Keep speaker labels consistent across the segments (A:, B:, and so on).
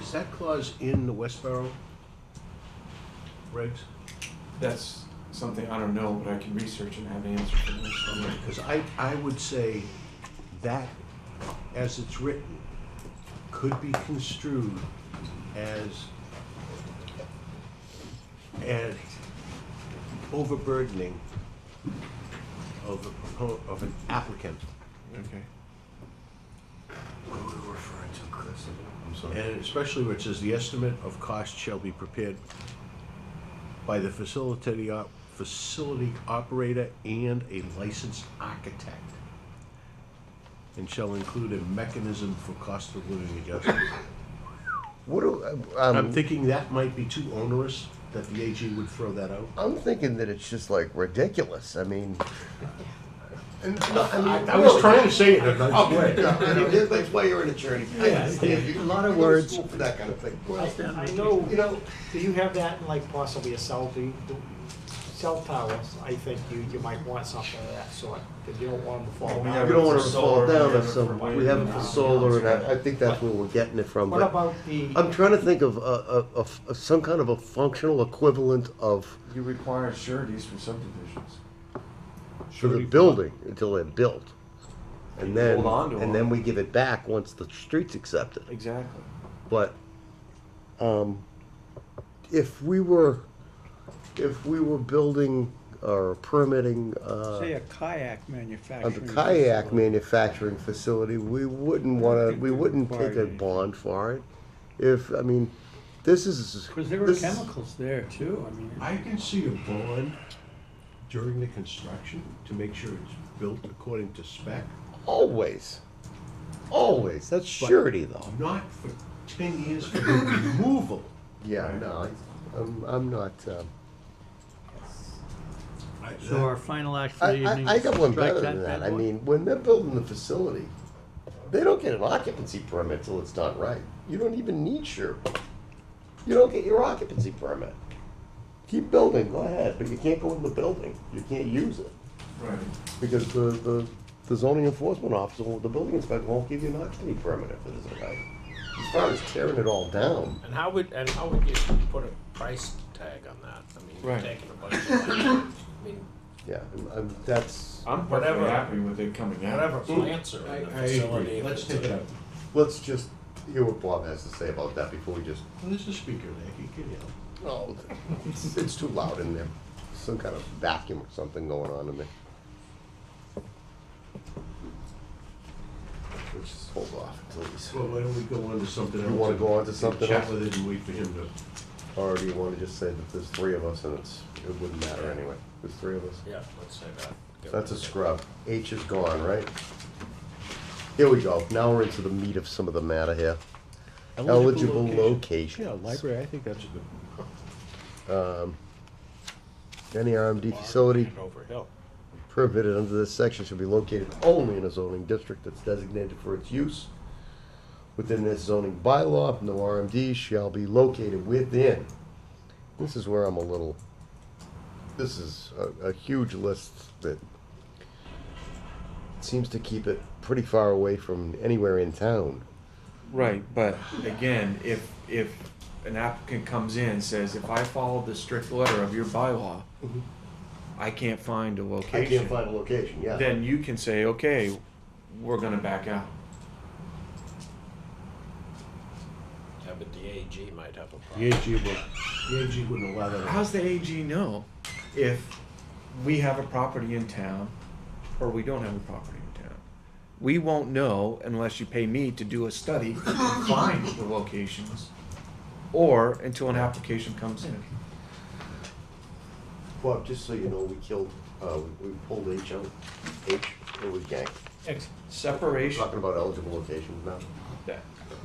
A: Is that clause in the Westboro regs?
B: That's something I don't know, but I can research and have an answer for you.
A: Because I, I would say that, as it's written, could be construed as an overburdening of a, propo- of an applicant.
B: Okay.
C: What are we referring to, Chris? I'm sorry.
A: And especially where it says, "The estimate of cost shall be prepared by the facility, op- facility operator and a licensed architect, and shall include a mechanism for cost of living adjustments."
C: What do,
A: I'm
C: um,
A: thinking that might be too onerous, that the AG would throw that out.
C: I'm thinking that it's just like ridiculous. I mean,
A: And, I was trying to say it in a nice way.
C: I mean, that's why you're an attorney. I understand. You-
D: A lot of
C: you go to
D: words.
C: school For that kind of thing.
D: I I know, you know, do you have that in like possibly a cell, do, do- cell towers? I think you, you might want something of that sort, because you don't want them to fall
B: We
C: You
B: have
D: down.
C: don't want it
B: For
C: to
B: solar,
C: fall down
B: we have
C: or
B: it for
C: something.
B: wind
C: We have it for
B: and-
C: solar and I, I think that's where we're getting it from.
D: What
C: but-
D: about the,
C: I'm trying to think of a, a- a f- some kind of a functional equivalent of
B: You require sureties for subdivisions.
C: for the building until they're built. And then,
B: Hold on to
C: and
B: them.
C: then we give it back once the street's accepted.
B: Exactly.
C: But, um, if we were, if we were building or permitting,
E: Say
C: uh,
E: a kayak manufacturer.
C: under kayak manufacturing facility, we wouldn't wanna, we wouldn't take a bond for it. If, I mean, this is.
E: Because there were
C: this-
E: chemicals there too, I mean,
A: I can see a bond during the construction to make sure it's built according to spec,
C: Always. Always. That's surety though.
A: not for ten years for the removal.
C: Yeah, no, I- I'm, I'm not, um,
A: I-
E: so our final act for
C: I,
E: the evening.
C: I, I got one
E: strike
C: better than
E: bad
C: that. I
E: boy?
C: mean, when they're building the facility, they don't get an occupancy permit till it's done right. You don't even need your, you don't get your occupancy permit. Keep building, go ahead, but you can't go in the building. You can't use it
B: Right.
C: because the, the, the zoning enforcement officer, or the building inspector won't give you an occupancy permit if it isn't right. As far as tearing it all down,
F: And how would, and how would you put a price tag on that? I mean, you're
B: Right.
F: taking a bunch of land, I mean,
C: yeah, I'm- I'm, that's,
B: I'm perfectly
F: Whatever.
B: happy with it coming out.
F: whatever plants are in the
A: I agree.
F: facility.
A: Let's take it up.
C: let's just hear what Bob has to say about that before we just
A: Well, there's a speaker there, he can yell.
C: Oh, it's, it's too loud in there. Some kind of vacuum or something going on in there. Let's just hold off until he's.
A: Well, why don't we go on to something else?
C: You wanna go on to
A: and
C: something
A: Chat
C: else?
A: with it and wait for him to,
C: Or do you want to just say that there's three of us and it's, it wouldn't matter anyway? There's three of us.
F: Yeah, let's say that. Get
C: That's a
F: rid of it.
C: scrub. H is gone, right? Here we go. Now we're into the meat of some of the matter here. Eligible
A: Yeah,
C: location.
A: library, I think that's a good.
C: Any RMD facility
F: Over hill.
C: prohibited under this section should be located only in a zoning district that's designated for its use. Within this zoning bylaw, no RMD shall be located within. This is where I'm a little, this is a, a huge list that seems to keep it pretty far away from anywhere in town.
B: Right, but again, if, if an applicant comes in and says, if I follow the strict letter of your bylaw,
C: Mm-hmm.
B: I can't find a
C: I can't
B: location,
C: find a location, yeah.
B: then you can say, okay, we're gonna back out.
F: Yeah, but the AG might have a
A: The
F: problem.
A: AG would, the AG wouldn't allow that.
B: How's the AG know if we have a property in town or we don't have a property in town? We won't know unless you pay me to do a study and find the locations or until an application comes in.
C: Bob, just so you know, we killed, uh, we we pulled H out, H, it was yanked.
B: Separation,
C: Talking about eligible locations now.
B: that.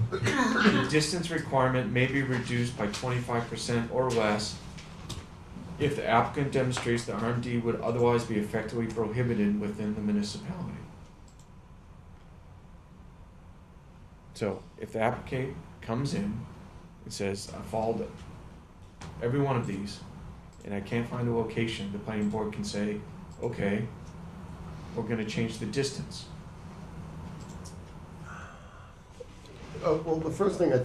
B: The distance requirement may be reduced by twenty-five percent or less if the applicant demonstrates the RMD would otherwise be effectively prohibited within the municipality. So if the applicant comes in and says, I followed every one of these and I can't find a location, the planning board can say, okay, we're gonna change the distance.
C: Uh, well, the first thing I